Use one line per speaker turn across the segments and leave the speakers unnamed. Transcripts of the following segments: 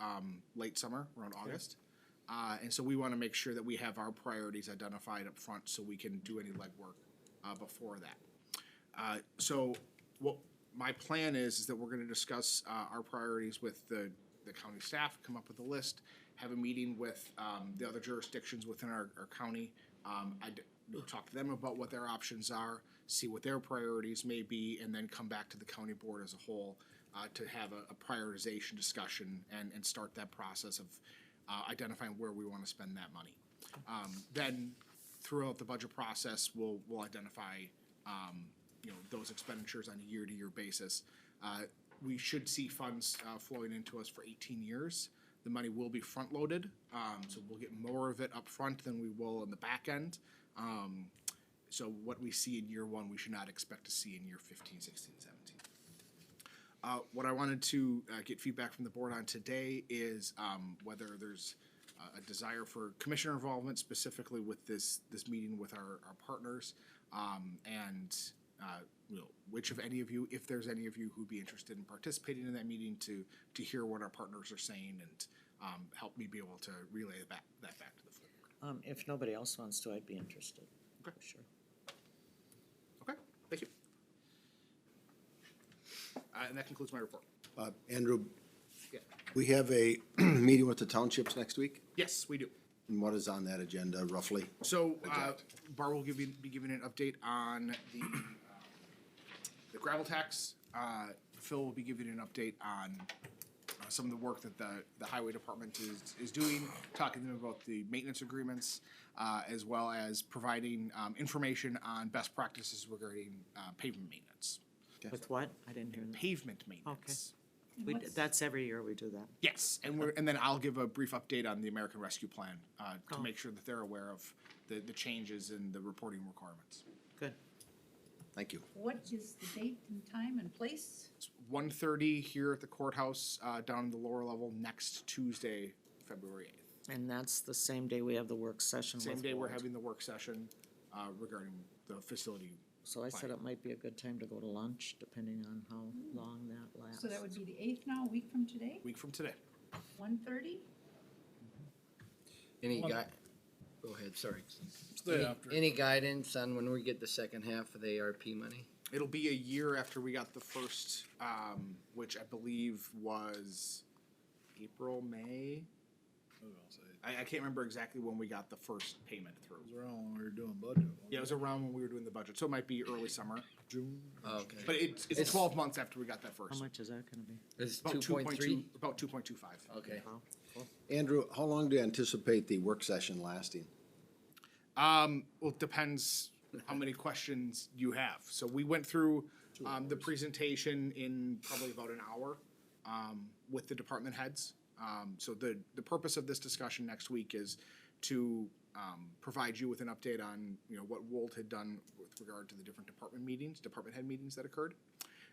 um, late summer, around August. Uh, and so we want to make sure that we have our priorities identified up front so we can do any legwork uh, before that. Uh, so what my plan is is that we're going to discuss uh, our priorities with the, the county staff, come up with a list, have a meeting with um, the other jurisdictions within our, our county. Um, I d- talk to them about what their options are, see what their priorities may be, and then come back to the county board as a whole uh, to have a, a prioritization discussion and, and start that process of uh, identifying where we want to spend that money. Um, then throughout the budget process, we'll, we'll identify, um, you know, those expenditures on a year-to-year basis. Uh, we should see funds, uh, flowing into us for eighteen years. The money will be front-loaded, um, so we'll get more of it up front than we will in the back end. Um, so what we see in year one, we should not expect to see in year 15, 16, 17. Uh, what I wanted to uh, get feedback from the board on today is um, whether there's uh, a desire for commissioner involvement specifically with this this meeting with our, our partners um, and uh, you know, which of any of you, if there's any of you who'd be interested in participating in that meeting to to hear what our partners are saying and um, help me be able to relay that, that back to the full board.
Um, if nobody else wants to, I'd be interested.
Okay.
for Sure.
Okay, thank you. Uh, and that concludes my report.
Uh, Andrew,
Yeah.
we have a meeting with the townships next week,
Yes, we do.
and what is on that agenda roughly?
So, uh, Bar will give you, be giving an update on the, um, the gravel tax. Uh, Phil will be giving an update on uh, some of the work that the, the highway department is, is doing, talking to them about the maintenance agreements, uh, as well as providing, um, information on best practices regarding, uh, pavement maintenance.
With what? I didn't hear that.
Pavement maintenance.
We, d- that's every year we do that.
Yes, and we're, and then I'll give a brief update on the American Rescue Plan, uh, to
Oh.
make sure that they're aware of the, the changes in the reporting requirements.
Good.
Thank you.
What is the date and time and place?
one thirty here at the courthouse, uh, down in the lower level next Tuesday, February eighth.
And that's the same day we have the work session
Same
with
day we're
Ward.
having the work session, uh, regarding the facility.
So I
Fine.
said it might be a good time to go to lunch, depending on how long that lasts.
So that would be the eighth now, a week from today,
Week from today.
one thirty?
Any
One-
guy, go ahead, sorry.
Stay
Any-
after.
Any guidance on when we get the second half of the ARP money?
It'll be a year after we got the first, um, which I believe was April, May.
What else I-
I, I can't remember exactly when we got the first payment through.
It was around when we were doing budget. wasn't
Yeah, it was around when we were doing the budget, so it might be early summer,
it? June.
Oh, Okay.
but it's, it's
It's-
twelve months after we got that
How
first.
much is that gonna be?
It's
About two Uh,
two point three?
About two point two five.
Okay.
Wow.
Andrew, how long do you anticipate the work session lasting?
Um, well, it depends how many questions you have. So we went through um, the presentation in probably about an hour um, with the department heads. Um, so the the purpose of this discussion next week is to um, provide you with an update on you know what Wold had done with regard to the different department meetings, department head meetings that occurred,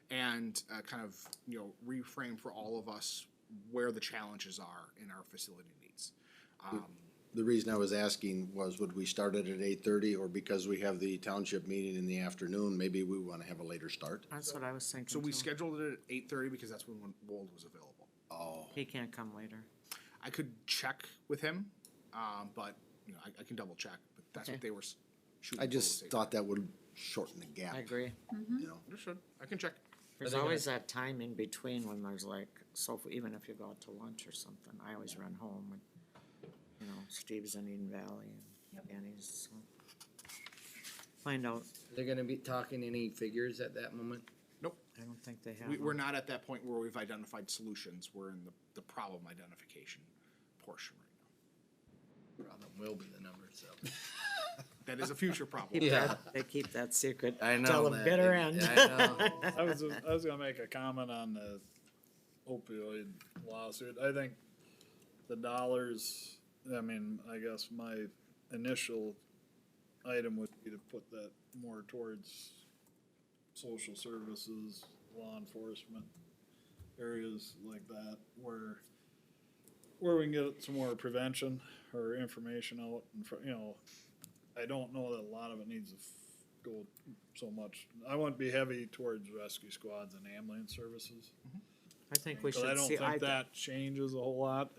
and uh, kind of you know reframe for all of us where the challenges are in our facility needs.
The reason I was asking was would we start it at eight thirty, or because we have the township meeting in the afternoon, maybe we wanna have a later start?
That's what I was thinking
So we
too.
scheduled it at eight thirty because that's when Wold was available.
Oh,
He can't come later.
I could check with him, um, but you know, I, I can double check, but that's what
Okay.
they were s- shooting.
I
for was
just
eight.
thought that would shorten the gap.
I agree. Mm-hmm.
You know,
Understood. I can check.
There's
they gonna-
always that time in between when there's like, so if- even if you go out to lunch or something, I always run home and, you know, Steve's in Eden Valley and
Yep.
Danny's, so. Find out,
They're gonna be talking any figures at that moment?
Nope.
I don't think they have.
We, we're
them.
not at that point where we've identified solutions. We're in the, the problem identification portion right
Problem will be the number, so.
now. That is a future problem.
Keep
Yeah.
that, they keep that secret.
I know.
Till the
that.
bitter
Yeah,
end.
I know.
I was, I was gonna make a comment on the opioid lawsuit. I think the dollars, I mean, I guess my initial item would be to put that more towards social services, law enforcement, areas like that where, where we can get some more prevention or information out and, you know, I don't know that a lot of it needs to f- go so much. I wouldn't be heavy towards rescue squads and ambulance services.
I think we
But I
should
don't
see, I,
think that changes a whole lot